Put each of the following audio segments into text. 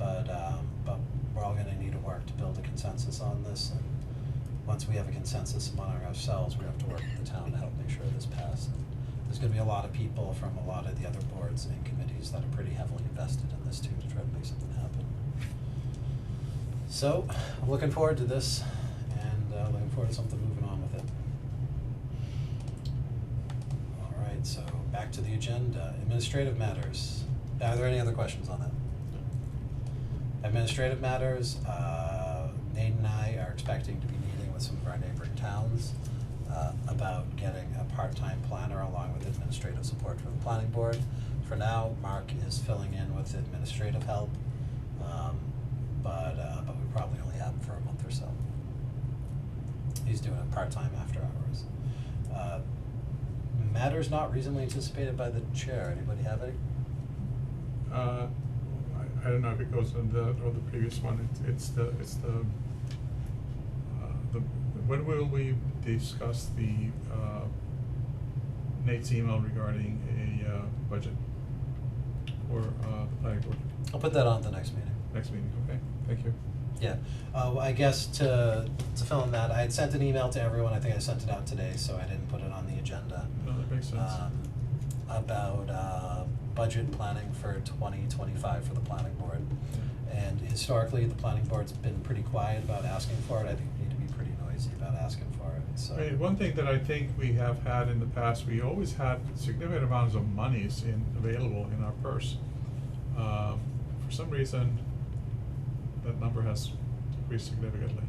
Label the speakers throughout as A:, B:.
A: um, work to build a consensus on this, and once we have a consensus among ourselves, we have to work with the town to help make sure this passes. There's gonna be a lot of people from a lot of the other boards and committees that are pretty heavily invested in this too, to try to make something happen. So, I'm looking forward to this, and, uh, looking forward to something moving on with it. All right, so back to the agenda, administrative matters. Are there any other questions on that? Administrative matters, uh, Nate and I are expecting to be meeting with some of our neighboring towns uh, about getting a part-time planner along with administrative support for the planning board. For now, Mark is filling in with administrative help, um, but, uh, but we probably only have him for a month or so. He's doing it part-time after hours. Uh, Matters not reasonably anticipated by the chair, anybody have any?
B: Uh, I, I don't know if it goes on the, or the previous one, it's, it's the, it's the, uh, the, when will we discuss the, uh, Nate's email regarding a, uh, budget? Or, uh, the planning board,
A: I'll put that on at the next meeting.
B: next meeting, okay, thank you.
A: Yeah, uh, well, I guess to, to fill in that, I had sent an email to everyone, I think I sent it out today, so I didn't put it on the agenda.
B: No, that makes sense.
A: Um, about, uh, budget planning for twenty twenty-five for the planning board. And historically, the planning board's been pretty quiet about asking for it, I think we need to be pretty noisy about asking for it, so.
B: I mean, one thing that I think we have had in the past, we always had significant amounts of monies in, available in our purse. Um, for some reason, that number has decreased significantly.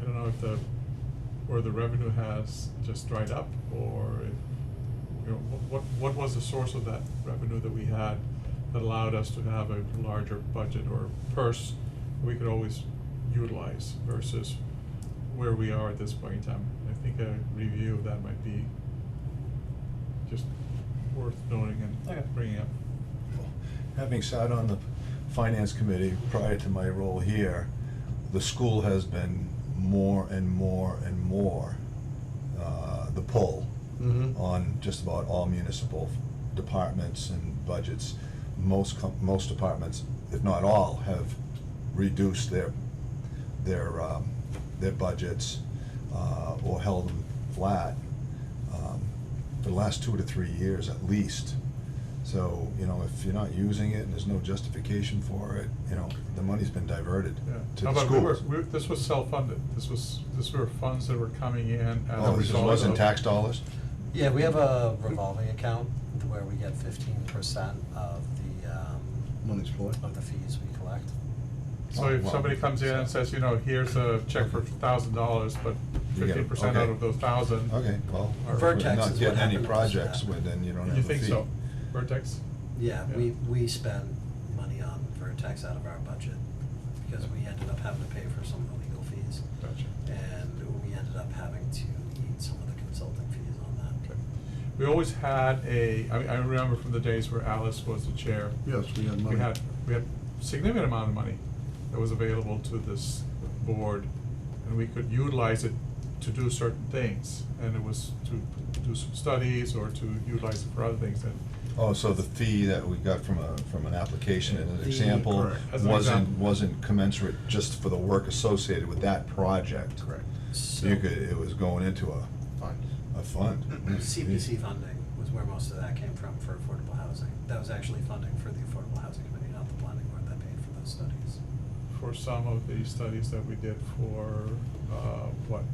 B: I don't know if the, or the revenue has just dried up, or if, you know, wh- what, what was the source of that revenue that we had that allowed us to have a larger budget or purse we could always utilize versus where we are at this point in time. I think a review of that might be just worth noting
A: Okay.
B: and bringing up.
C: Having sat on the finance committee prior to my role here, the school has been more and more and more uh, the pull
A: Mhm.
C: on just about all municipal departments and budgets. Most com- most departments, if not all, have reduced their their um, their budgets uh, or held them flat um, for the last two to three years at least. So you know, if you're not using it and there's no justification for it, you know, the money's been diverted
B: Yeah.
C: to
B: How
C: the
B: about we were,
C: schools.
B: we, this was self-funded, this was, this were funds that were coming in as a
C: oh, this
B: result
C: wasn't
B: of-
C: tax dollars.
A: Yeah, we have a revolving account where we get fifteen percent of the, um,
D: Money's flowing.
A: of the fees we collect.
B: So
C: Oh,
B: if
C: wow.
B: somebody comes in and says, you know, here's a check for thousand dollars, but
C: You get it.
B: fifteen percent out
C: Okay.
B: of those thousand.
C: Okay, well,
B: Or-
C: if
A: Vertex
C: we're
A: is
C: not
A: what
C: getting any
A: happened.
C: projects, well, then you don't have a
B: You
C: fee.
B: think so? Vertex?
A: Yeah,
B: Yeah.
A: we, we spent money on Vertex out of our budget, because we ended up having to pay for some of the legal fees,
B: Gotcha.
A: and we ended up having to eat some of the consulting fees on that.
B: Okay. We always had a, I, I remember from the days where Alice was the chair.
D: Yes, we had money.
B: We had, we had significant amount of money that was available to this board, and we could utilize it to do certain things. And it was to do some studies or to utilize it for other things, and
C: Oh, so the fee that we got from a, from an application and an
A: The-
C: example
B: Correct. As an
C: wasn't,
B: example.
C: wasn't commensurate just for the work associated with that project.
B: Correct.
C: So you could, it was going into a,
D: Fine.
C: a fund.
B: Mm-hmm.
C: Mm-hmm.
A: CPC funding was where most of that came from for affordable housing. That was actually funding for the Affordable Housing Committee, not the planning board that paid for those studies.
B: for some of the studies that we did for, uh, what?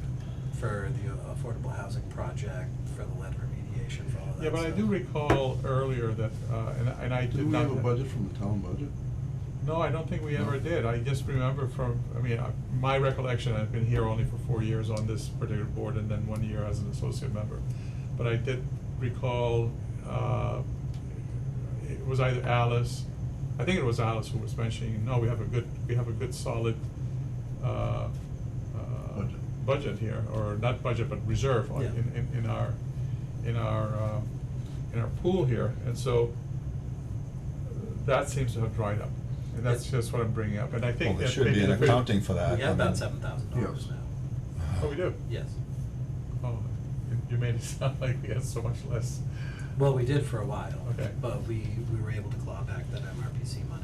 A: For the affordable housing project, for the lead remediation, for all of that
B: Yeah, but I
A: stuff.
B: do recall earlier that, uh, and, and I did
D: Didn't we
B: not.
D: have a budget from the town budget?
B: No, I don't think we ever
D: No.
B: did. I just remember from, I mean, I- my recollection, I've been here only for four years on this particular board and then one year as an associate member. But I did recall, uh, it was either Alice, I think it was Alice who was mentioning, no, we have a good, we have a good solid, uh, uh,
D: Budget.
B: budget here, or not budget, but reserve on,
A: Yeah.
B: in, in, in our, in our, uh, in our pool here. And so that seems to have dried up, and that's
A: Yeah.
B: just what I'm bringing up, and I
C: Well,
B: think
C: there
B: that
C: should
B: maybe
C: be an
B: the-
C: accounting for that.
A: We have
C: I
A: about
C: mean-
A: seven thousand dollars
D: Yes.
A: now,
B: Oh, we do?
A: yes.
B: Oh, you- you made it sound like we had so much less.
A: Well, we did for a while.
B: Okay.
A: But we, we were able to claw back that MRPC money